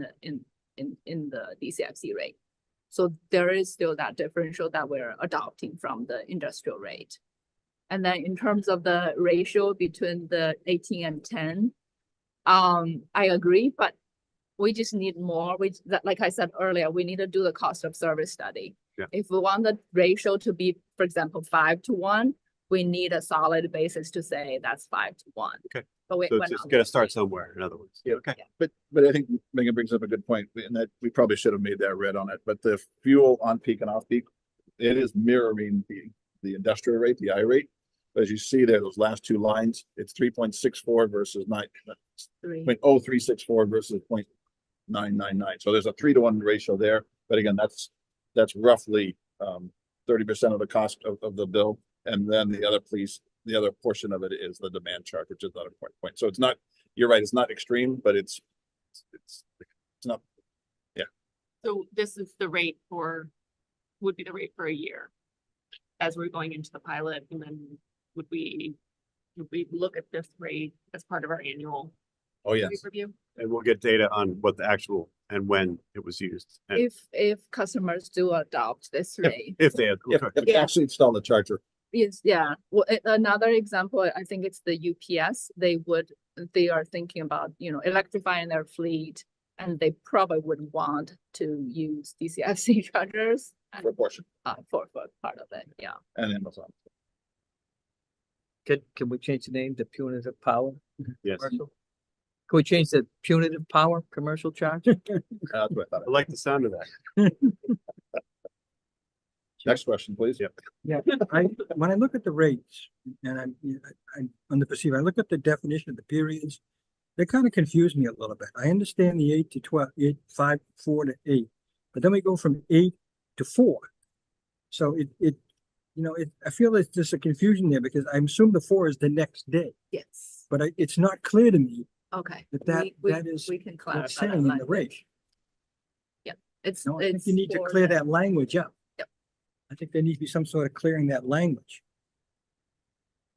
the- in, in, in the DCFC rate. So there is still that differential that we're adopting from the industrial rate. And then in terms of the ratio between the eighteen and ten, um, I agree, but we just need more, we, that, like I said earlier, we need to do the cost of service study. Yeah. If we want the ratio to be, for example, five to one, we need a solid basis to say that's five to one. Okay. But we. So we're it's just not gotta there start yet. somewhere, in other words. Yeah. Okay, But, but I think Megan brings up a good point, and that we probably should have made that red on it, but the fuel on peak and off peak, it is mirroring the, the industrial rate, the I rate. As you see there, those last two lines, it's three point six four versus nine, Three. point oh three six four versus point nine nine nine. So there's a three to one ratio there, but again, that's, that's roughly, um, thirty percent of the cost of, of the bill. And then the other piece, the other portion of it is the demand charge, which is not a point, point. So it's not, you're right, it's not extreme, but it's, it's, it's not, So this is the rate for, would be the rate for a year. As we're going into the pilot and then would we, would we look at this rate as part of our annual oh yes. rate review? and we'll get data on what the actual and when it was used, and If, if customers do adopt this Yeah. rate, if they had. If, okay. if they actually install the charger, yes, yeah. Well, a- another example, I think it's the UPS, they would, they are thinking about, you know, electrifying their fleet. And they probably would want to use DCFC chargers uh, for a portion uh, for, for part of it, yeah. and Amazon. Can, can we change the name to punitive power Yes, I commercial? Can we change the punitive power commercial charge? That's what I thought. like the sound of that. Next question, please. Yep. Yeah, I, when I look at the rates and I'm, you know, I- I'm on the perceive, I look at the definition of the periods. They kind of confuse me a little bit. I understand the eight to twelve, eight, five, four to eight, but then we go from eight to four. So it, it, you know, it, I feel there's just a confusion there because I assume the four is the next day, Yes, but I, it's not clear to me okay. But that- We- we- that is We can what's clarify saying that in the language. rate. It's, No, I think it's. you need to for clear the- that language up. Yep. I think there needs to be some sort of clearing that language.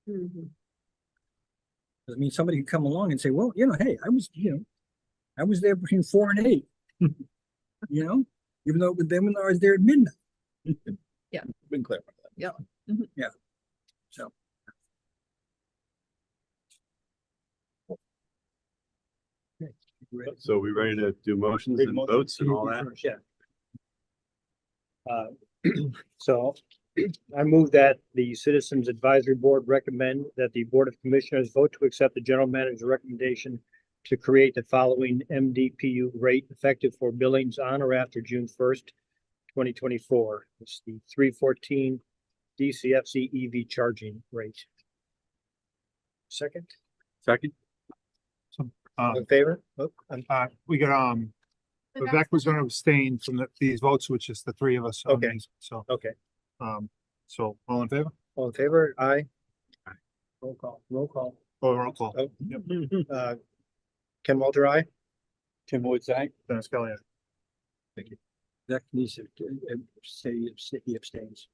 Mm-hmm. 'Cause, I mean, somebody could come along and say, well, you know, hey, I was, you know, I was there between four and eight. You know, even though, but then when I was there at midnight, Been clear. about that. so. Okay, ready? So we ready to do motions and votes and all that? Yeah. Uh, So I move that the Citizens Advisory Board recommend that the Board of Commissioners vote to accept the general manager's recommendation to create the following MDPU rate effective for billings on or after June first, twenty twenty-four. It's the three fourteen DCFC EV E charging rate. Second, Second? Uh, in favor? Oh, I'm- uh, we got, um, Vivek was gonna abstain from the, these votes, which is the three of us. on Okay. these, So, Okay, um, so all in favor? all in favor? Aye. Roll call, roll call. Oh, roll call. Oh, uh, Ken Walter, aye? Tim Woods, I. Dennis Kelly, aye. That needs to uh, uh, say, say he abstains.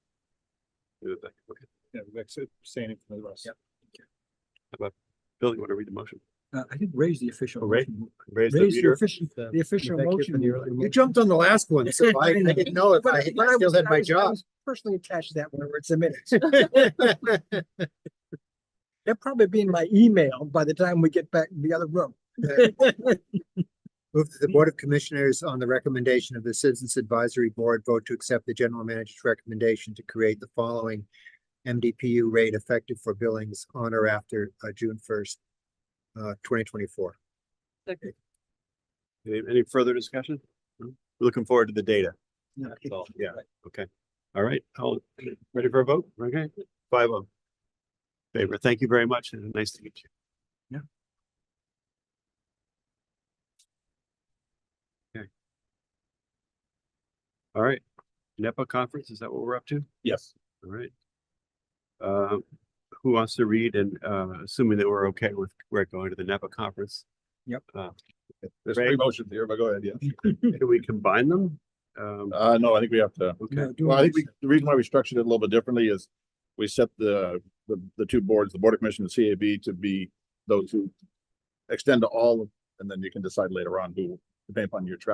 yeah, Vivek's abstaining from the rest. Yep. Bill, you wanna read the motion? Uh, I did raise the official. Oh, right. motion. Raise the Raise the meter. official, the official Vivek, you're motion. from the early- motion. on the last one, I didn't know But I- but I was- I was- I was Personally attached to that whenever it's a minute. It'll probably be in my email by the time we get back in the other room. Move that the Board of Commissioners, on the recommendation of the Citizens Advisory Board, vote to accept the general manager's recommendation to create the following MDPU rate effective for billings on or after uh, June first, uh, twenty twenty-four. Any, any further discussion? No? We're Looking forward to the data. Yeah. That's all. Yeah, okay. All right, I'll, ready for a vote? Okay, five of favor. Thank you very much and nice to meet you. Yeah. Okay. All right, NEPA conference, is that what we're up to? Yes. All right. Uh, who wants to read and, uh, assuming that we're okay with, we're going to the NEPA conference? Yep. Uh, There's three Ray? motions here, but go ahead, yeah. do we combine them? Um, Uh, no, I think we have to. okay, Well, I think we, the reason why we structured it a little bit differently is we set the, the, the two boards, the Board of Commission and CAB to be those who extend to all, and then you can decide later on who depending upon your travel